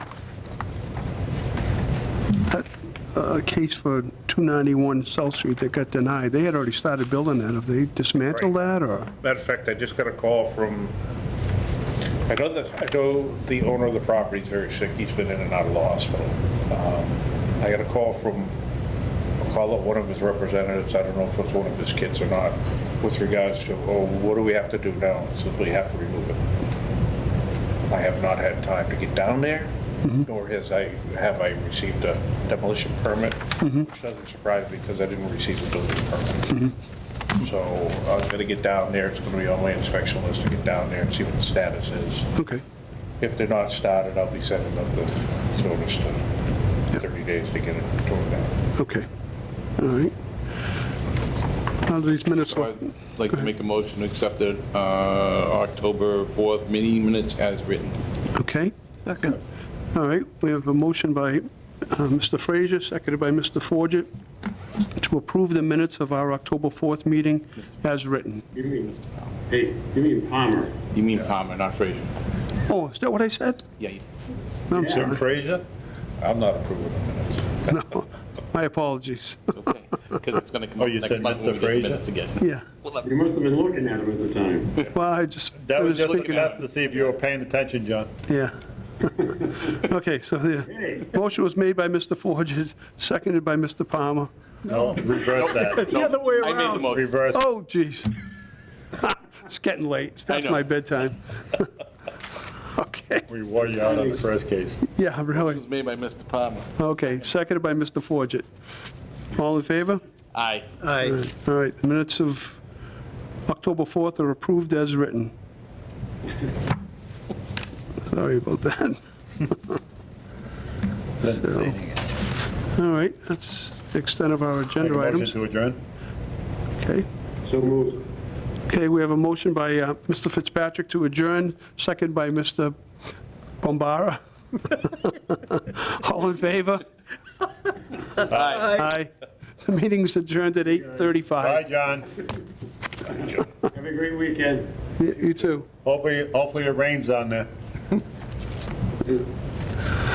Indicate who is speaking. Speaker 1: a case for 291 South Street that got denied. They had already started building that. Have they dismantled that, or?
Speaker 2: Matter of fact, I just got a call from, I know that, I know the owner of the property is very sick, he's been in and out of the hospital. Um, I got a call from, I'll call it one of his representatives, I don't know if it's one of his kids or not, with regards to, oh, what do we have to do now? He says, we have to remove it. I have not had time to get down there, nor has I, have I received a demolition permit, which doesn't surprise me because I didn't receive a building permit. So I'm going to get down there, it's going to be on my inspection list to get down there and see what the status is.
Speaker 1: Okay.
Speaker 2: If they're not started, I'll be sending up the notice to 30 days to get it torn down.
Speaker 1: Okay, all right. How do these minutes
Speaker 3: So
Speaker 1: look?
Speaker 3: I'd like to make a motion to accept the uh, October 4th meeting minutes as written.
Speaker 1: Okay? Second. All right, we have a motion by uh, Mr. Frazier, seconded by Mr. Forget, to approve the minutes of our October 4th meeting as written.
Speaker 4: You mean, hey, you mean Palmer?
Speaker 3: You mean Palmer, not Frazier?
Speaker 1: Oh, is that what I said?
Speaker 3: Yeah, you-
Speaker 1: I'm sorry.
Speaker 2: Frazier? I'm not approving the minutes.
Speaker 1: No, my apologies.
Speaker 3: it's okay, because it's going to come
Speaker 2: Oh,
Speaker 3: up
Speaker 2: you
Speaker 3: next
Speaker 2: said
Speaker 3: month
Speaker 2: Mr.
Speaker 3: when we get the
Speaker 2: Frazier?
Speaker 3: minutes again.
Speaker 1: Yeah,
Speaker 4: You must have been looking at him at the time.
Speaker 1: well, I just
Speaker 5: That
Speaker 1: finished
Speaker 5: was just a
Speaker 1: thinking,
Speaker 5: test to see if you were paying attention, John.
Speaker 1: yeah. Okay, so the
Speaker 4: Hey.
Speaker 1: motion was made by Mr. Forget, seconded by Mr. Palmer.
Speaker 5: No, reverse that.
Speaker 1: The other way
Speaker 3: I made the
Speaker 1: around.
Speaker 3: motion.
Speaker 5: Reverse.
Speaker 1: Oh, geez. It's getting late. It's past
Speaker 3: know.
Speaker 1: my bedtime. Okay,
Speaker 5: We wore you out on the first case.
Speaker 1: yeah,
Speaker 3: It
Speaker 1: really.
Speaker 3: was made by Mr. Palmer.
Speaker 1: Okay, seconded by Mr. Forget. All in favor?
Speaker 3: Aye.
Speaker 6: Aye.
Speaker 1: All right, the minutes of October 4th are approved as written. Sorry about that. So, All right, that's the extent of our
Speaker 5: Make a
Speaker 1: agenda
Speaker 5: motion
Speaker 1: items.
Speaker 5: to adjourn?
Speaker 1: Okay.
Speaker 4: So moved.
Speaker 1: Okay, we have a motion by uh, Mr. Fitzpatrick to adjourn, second by Mr. Bombara. All in favor?
Speaker 3: Aye.
Speaker 1: Aye. The meeting's adjourned at
Speaker 5: Bye,
Speaker 1: 8:35.
Speaker 5: John.
Speaker 4: Have a great weekend.
Speaker 1: You you too.
Speaker 5: Hopefully, hopefully it rains on there.